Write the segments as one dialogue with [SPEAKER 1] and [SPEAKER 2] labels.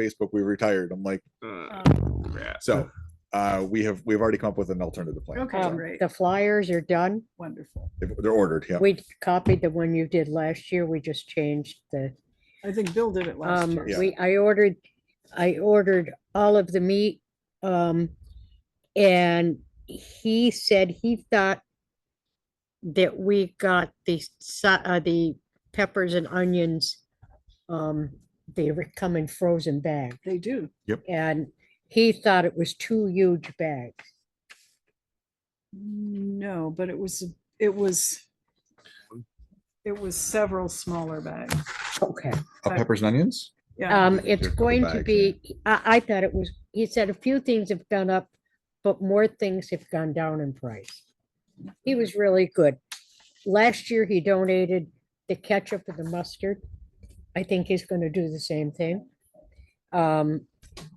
[SPEAKER 1] Facebook, we retired. I'm like,
[SPEAKER 2] Uh, crap.
[SPEAKER 1] so uh, we have we've already come up with an alternative plan.
[SPEAKER 2] Okay,
[SPEAKER 1] So,
[SPEAKER 3] Um,
[SPEAKER 2] great.
[SPEAKER 3] The flyers are done.
[SPEAKER 2] Wonderful.
[SPEAKER 1] if- They're ordered. Yeah.
[SPEAKER 3] We copied the one you did last year. We just changed the,
[SPEAKER 2] I think Bill did it last
[SPEAKER 3] um,
[SPEAKER 2] year.
[SPEAKER 1] Yeah.
[SPEAKER 3] we, I ordered, I ordered all of the meat. Um, and he said he thought that we got the, sa- uh, the peppers and onions. Um, they were coming frozen bagged
[SPEAKER 2] They do.
[SPEAKER 3] and he thought it was two huge bags.
[SPEAKER 2] No, but it was, it was, it was several smaller bags.
[SPEAKER 3] Okay.
[SPEAKER 1] Uh, peppers and onions.
[SPEAKER 2] Yeah,
[SPEAKER 3] Um,
[SPEAKER 1] think
[SPEAKER 3] it's
[SPEAKER 1] they're covered
[SPEAKER 3] going to
[SPEAKER 1] bags, yeah.
[SPEAKER 3] be, I, I thought it was, he said a few things have gone up, but more things have gone down in price. He was really good. Last year, he donated the ketchup and the mustard. I think he's gonna do the same thing. Um,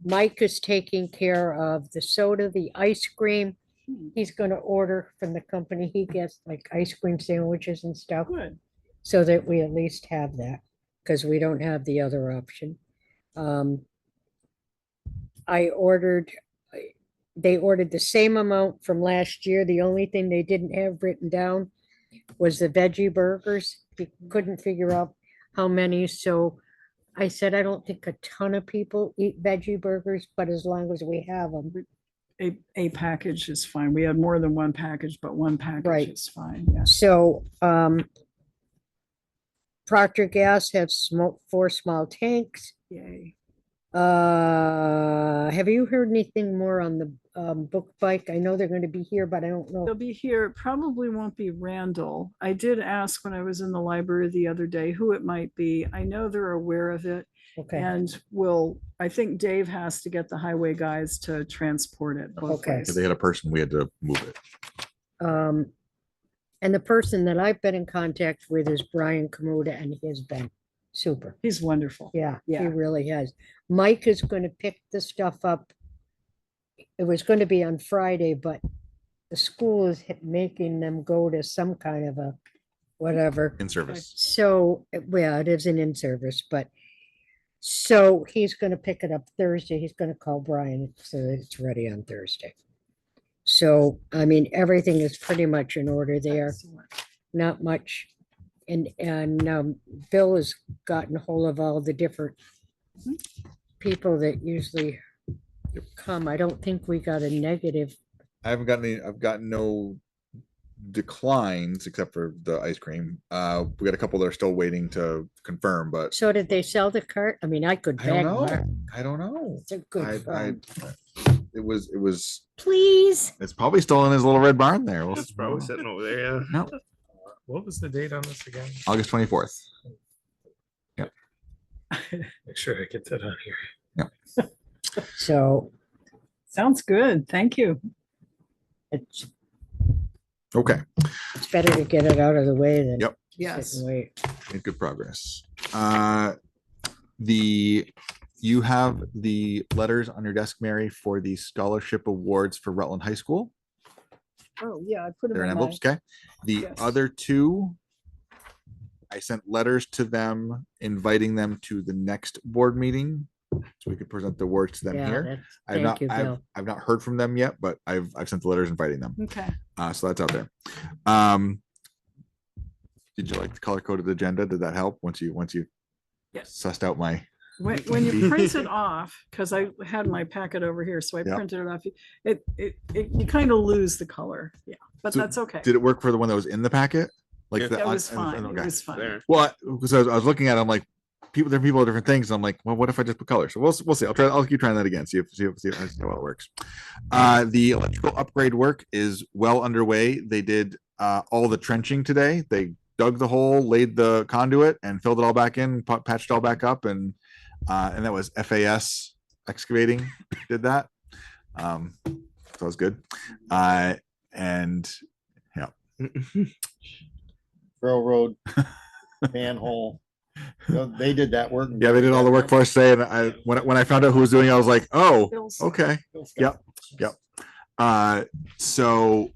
[SPEAKER 3] Mike is taking care of the soda, the ice cream.
[SPEAKER 2] Hmm.
[SPEAKER 3] He's gonna order from the company. He gets like ice cream sandwiches and stuff
[SPEAKER 2] good.
[SPEAKER 3] so that we at least have that, because we don't have the other option. Um, I ordered, I- they ordered the same amount from last year. The only thing they didn't have written down was the veggie burgers. We couldn't figure out how many, so I said, I don't think a ton of people eat veggie burgers, but as long as we have them.
[SPEAKER 2] A, a package is fine. We had more than one package, but one package
[SPEAKER 3] Right.
[SPEAKER 2] is fine. Yes.
[SPEAKER 3] So, um, Procter Gas have smoke, four small tanks.
[SPEAKER 2] Yay.
[SPEAKER 3] Uh, have you heard anything more on the um book bike? I know they're gonna be here, but I don't
[SPEAKER 2] They'll
[SPEAKER 3] know.
[SPEAKER 2] be here. It Probably won't be Randall. I did ask when I was in the library the other day who it might be. I know they're aware of it.
[SPEAKER 3] Okay,
[SPEAKER 2] And will, I think Dave has to get the highway guys to transport it both
[SPEAKER 3] Okay.
[SPEAKER 2] ways.
[SPEAKER 1] If they had a person, we had to move it.
[SPEAKER 3] um, and the person that I've been in contact with is Brian Kamuda and he has been super.
[SPEAKER 2] He's wonderful.
[SPEAKER 3] Yeah, he
[SPEAKER 2] Yeah.
[SPEAKER 3] really has. Mike is gonna pick the stuff up. It was gonna be on Friday, but the school is h- making them go to some kind of a whatever.
[SPEAKER 1] In service.
[SPEAKER 3] So, uh, well, it isn't in service, but so he's gonna pick it up Thursday. He's gonna call Brian so that it's ready on Thursday. So, I mean, everything is pretty much in order there,
[SPEAKER 2] Excellent.
[SPEAKER 3] not much. And, and, um, Bill has gotten hold of all the different people that usually come. I don't think we got a negative.
[SPEAKER 1] I haven't gotten any, I've gotten no declines except for the ice cream. Uh, we got a couple that are still waiting to confirm, but
[SPEAKER 3] So did they sell the cart? I mean, I could
[SPEAKER 1] I don't
[SPEAKER 3] beg.
[SPEAKER 1] know.
[SPEAKER 3] Mark.
[SPEAKER 1] I don't know.
[SPEAKER 3] It's a
[SPEAKER 1] I,
[SPEAKER 3] good
[SPEAKER 1] I,
[SPEAKER 3] phone.
[SPEAKER 1] it was, it was,
[SPEAKER 3] Please.
[SPEAKER 1] it's probably still in his little red barn there. We'll-
[SPEAKER 4] It's probably sitting over there. yeah.
[SPEAKER 1] No.
[SPEAKER 4] What was the date on this again?
[SPEAKER 1] August twenty-fourth.
[SPEAKER 4] Make sure I get that on here.
[SPEAKER 3] So
[SPEAKER 2] Sounds good. Thank you.
[SPEAKER 3] it's
[SPEAKER 1] Okay.
[SPEAKER 3] It's better to get it out of the way than.
[SPEAKER 1] Yep.
[SPEAKER 3] sit and
[SPEAKER 2] Yes.
[SPEAKER 3] Wait.
[SPEAKER 1] made good progress. Uh, The, you have the letters on your desk, Mary, for the scholarship awards for Rutland High School.
[SPEAKER 2] Oh, yeah, I put
[SPEAKER 1] They're in
[SPEAKER 2] him in my.
[SPEAKER 1] envelopes, okay? The
[SPEAKER 2] Yes.
[SPEAKER 1] other two, I sent letters to them inviting them to the next board meeting. So we could present the awards to them
[SPEAKER 3] Yeah,
[SPEAKER 1] here.
[SPEAKER 3] that's-
[SPEAKER 1] I've
[SPEAKER 3] thank
[SPEAKER 1] not,
[SPEAKER 3] you,
[SPEAKER 1] I've,
[SPEAKER 3] Bill.
[SPEAKER 1] I've not heard from them yet, but I've, I've sent the letters inviting them.
[SPEAKER 2] Okay.
[SPEAKER 1] Uh, so that's out there. Um, did you like the color coded agenda? Did that help once you, once you
[SPEAKER 2] Yes.
[SPEAKER 1] sussed out my?
[SPEAKER 2] When, when you print it off, because I had my packet over here, so I
[SPEAKER 1] Yeah.
[SPEAKER 2] printed it off. It, it, it, you kind of lose the color. Yeah, but
[SPEAKER 1] So
[SPEAKER 2] that's okay.
[SPEAKER 1] Did it work for the one that was in the packet? Like
[SPEAKER 4] Yeah.
[SPEAKER 1] the
[SPEAKER 2] That
[SPEAKER 1] un-
[SPEAKER 2] was
[SPEAKER 1] un- un-
[SPEAKER 2] fine. It
[SPEAKER 1] okay.
[SPEAKER 2] was fine.
[SPEAKER 4] There.
[SPEAKER 1] Well, because I, was- I was looking at, it, I'm like, people, there are people with different things. I'm like, well, what if I just put color? So we'll, s- we'll see. I'll try, I'll keep trying that again. See if, see if, see if- see how well it works. Uh, the electrical upgrade work is well underway. They did, uh, all the trenching today. They dug the hole, laid the conduit and filled it all back in, pa- patched all back up and, uh, and that was FAS excavating did that. Um, so that was good. Uh, and
[SPEAKER 5] railroad manhole. You know, They did that work.
[SPEAKER 1] Yeah, they did all the work for us today, and I when I- when I found out who was doing it, I was like, oh,
[SPEAKER 2] Bill's-
[SPEAKER 1] okay.
[SPEAKER 5] Bill's
[SPEAKER 1] Yep,
[SPEAKER 5] got-
[SPEAKER 1] yep. Uh, so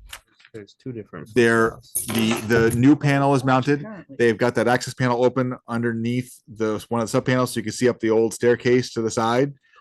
[SPEAKER 6] there's two different.
[SPEAKER 1] There-
[SPEAKER 6] files.
[SPEAKER 1] The the new panel is mounted.
[SPEAKER 2] Apparently.
[SPEAKER 1] They've got that access panel open underneath the one of the sub panels, so you can see up the old staircase to the side.